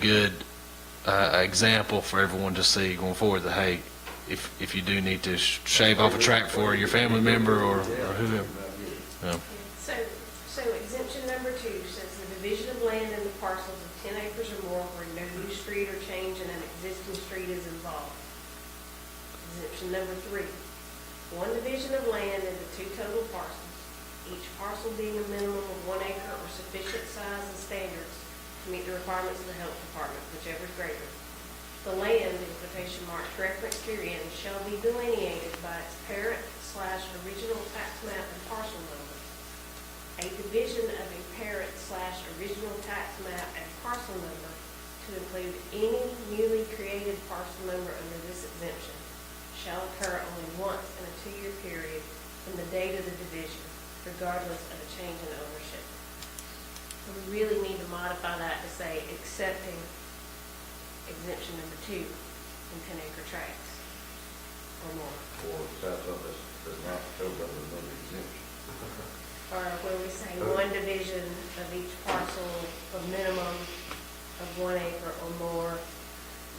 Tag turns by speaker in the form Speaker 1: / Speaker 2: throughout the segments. Speaker 1: good uh, example for everyone to see going forward that, hey, if, if you do need to sh- shave off a track for your family member or or whoever.
Speaker 2: So, so exemption number two says the division of land in the parcels of ten acres or more where no new street or change in an existing street is involved. Exemption number three, one division of land into two total parcels, each parcel being a minimum of one acre or sufficient size and standards to meet the requirements of the health department, whichever is greater. The land, in quotation marks referenced herein, shall be delineated by its parent slash original tax map and parcel number. A division of a parent slash original tax map and parcel number to include any newly created parcel number under this exemption shall occur only once in a two-year period from the date of the division, regardless of a change in ownership. So we really need to modify that to say accepting exemption number two in ten acre tracts or more.
Speaker 3: or south of us, but not covered under another exemption.
Speaker 2: Or where we say one division of each parcel, a minimum of one acre or more,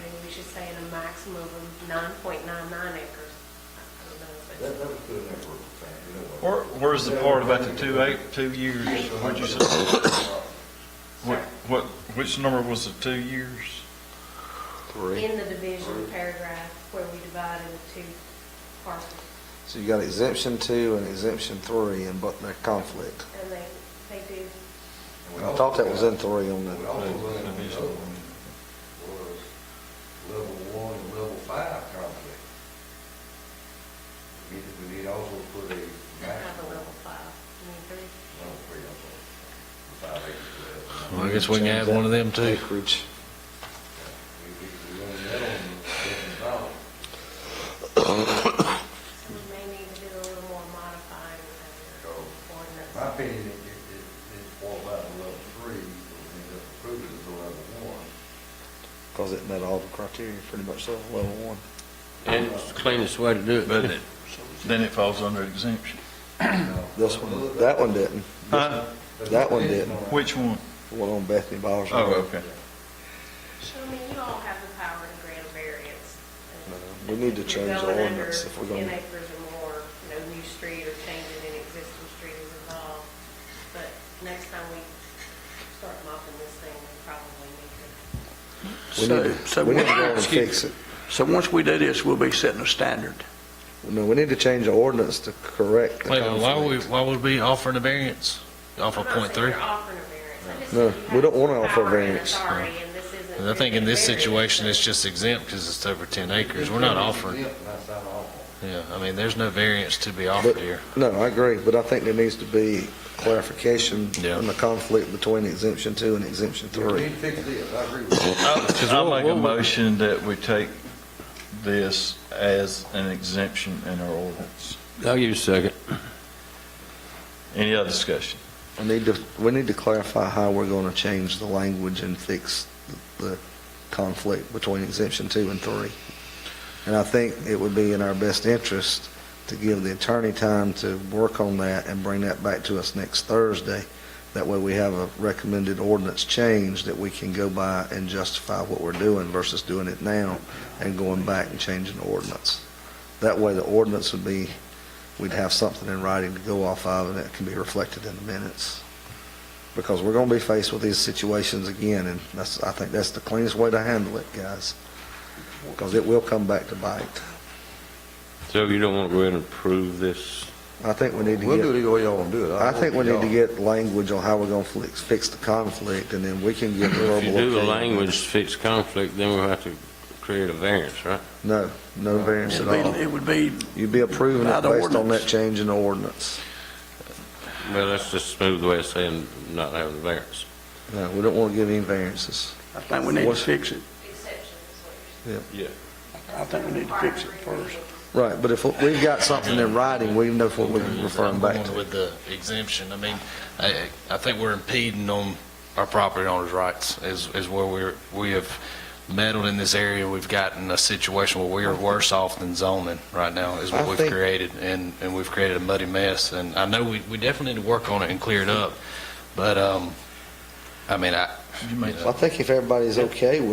Speaker 2: maybe we should say in a maximum of nine point nine nine acres. I don't know,
Speaker 3: That, that was good enough for the time, you know what?
Speaker 4: Where, where's the part about the two eight, two years? What'd you say? What, what, which number was the two years?
Speaker 2: but In the division paragraph where we divide into two parcels,
Speaker 5: So you got exemption two and exemption three, and but they're conflict.
Speaker 2: and they, they do,
Speaker 5: I thought that was in three on
Speaker 3: We also
Speaker 5: the,
Speaker 3: learned another one was level one and level five conflict. We need, we need also put a
Speaker 2: they have a
Speaker 3: maximum,
Speaker 2: level five, I mean, three.
Speaker 3: level three, I'm sorry, five acres.
Speaker 1: Well, I guess we can add one of them too.
Speaker 5: acreage.
Speaker 3: We, we, we learned that on the second ballot.
Speaker 2: So we may need to do a little more modifying of the
Speaker 3: So,
Speaker 2: ordinance.
Speaker 3: My opinion, it, it, it- it falls out of level three, but we end up approving it as a level one.
Speaker 5: Because it met all the criteria pretty much, so level one.
Speaker 6: And it's the cleanest way to do it.
Speaker 4: But it, then it falls under exemption.
Speaker 3: No.
Speaker 5: This one, that one didn't,
Speaker 4: Huh?
Speaker 5: that one didn't.
Speaker 4: Which one?
Speaker 5: the one on Bethany Bowers.
Speaker 4: Oh, okay.
Speaker 2: So, I mean, you all have the power to grant variance.
Speaker 5: We need to change the
Speaker 2: Going under
Speaker 5: ordinance if we're
Speaker 2: Ten
Speaker 5: gonna,
Speaker 2: acres or more, no new street or changing any existing street is involved. But next time we start mopping this thing, we probably need to.
Speaker 5: we need to,
Speaker 6: So- so
Speaker 5: we need to
Speaker 6: what-
Speaker 5: go and
Speaker 6: excuse
Speaker 5: fix
Speaker 6: me.
Speaker 5: it.
Speaker 6: So once we do this, we'll be setting a standard.
Speaker 5: No, we need to change the ordinance to correct the
Speaker 1: Wait, why would, we-
Speaker 5: conflict.
Speaker 1: why would we be offering a variance off of point three?
Speaker 2: I'm not saying you're offering a variance. I just
Speaker 5: No,
Speaker 2: said you
Speaker 5: we don't
Speaker 2: have
Speaker 5: wanna offer
Speaker 2: power and
Speaker 5: variance.
Speaker 2: authority, and this isn't
Speaker 1: And I think in this
Speaker 2: really a
Speaker 1: situation, it's
Speaker 2: variance.
Speaker 1: just exempt because it's over ten acres. We're not offering,
Speaker 3: That's not awful.
Speaker 1: yeah, I mean, there's no variance to be offered
Speaker 5: But,
Speaker 1: here.
Speaker 5: no, I agree, but I think there needs to be clarification
Speaker 1: Yeah.
Speaker 5: on the conflict between exemption two and exemption
Speaker 3: We
Speaker 5: three.
Speaker 3: need to fix this, I agree with you.
Speaker 4: I make a motion that we take this as an exemption in our ordinance.
Speaker 6: I'll give you a second.
Speaker 4: Any other discussion?
Speaker 5: We need to, we need to clarify how we're going to change the language and fix the conflict between exemption two and three. And I think it would be in our best interest to give the attorney time to work on that and bring that back to us next Thursday. That way we have a recommended ordinance change that we can go by and justify what we're doing versus doing it now and going back and changing the ordinance. That way the ordinance would be, we'd have something in writing to go off of and it can be reflected in the minutes. Because we're gonna be faced with these situations again and that's, I think that's the cleanest way to handle it, guys. Because it will come back to bite.
Speaker 6: So you don't want to go ahead and approve this?
Speaker 5: I think we need to get.
Speaker 3: We'll do it the way y'all want to do it.
Speaker 5: I think we need to
Speaker 3: Y'all-
Speaker 5: get language on how we're gonna fix, fix the conflict, and then we can get verbal
Speaker 6: If you do the
Speaker 5: opinion.
Speaker 6: language fix conflict, then we'll have to create a variance, right?
Speaker 5: No, no variance at all.
Speaker 7: It would be,
Speaker 5: You'd be approving
Speaker 7: By
Speaker 5: it
Speaker 7: the
Speaker 5: based on
Speaker 7: ordinance.
Speaker 5: that change in the ordinance.
Speaker 6: Well, that's just smooth way of saying not having a variance.
Speaker 5: No, we don't wanna give any variances.
Speaker 7: I think we need to
Speaker 5: What's-
Speaker 7: fix it.
Speaker 2: Exception is what you're
Speaker 7: I think we need to fix it first.
Speaker 5: Right, but if we've got something in writing, we know what we're referring
Speaker 1: I'm
Speaker 5: back
Speaker 1: going
Speaker 5: to.
Speaker 1: With the exemption, I mean, I, I think we're impeding on our property owners' rights is, is where we're, we have meddled in this area. We've gotten a situation where we are worse off than zoning right now is
Speaker 5: I
Speaker 1: what we've
Speaker 5: think-
Speaker 1: created. And, and we've created a muddy mess. And I know we, we definitely need to work on it and clear it up. But, um, I mean, I,
Speaker 4: You may
Speaker 5: Well, I think if everybody's okay with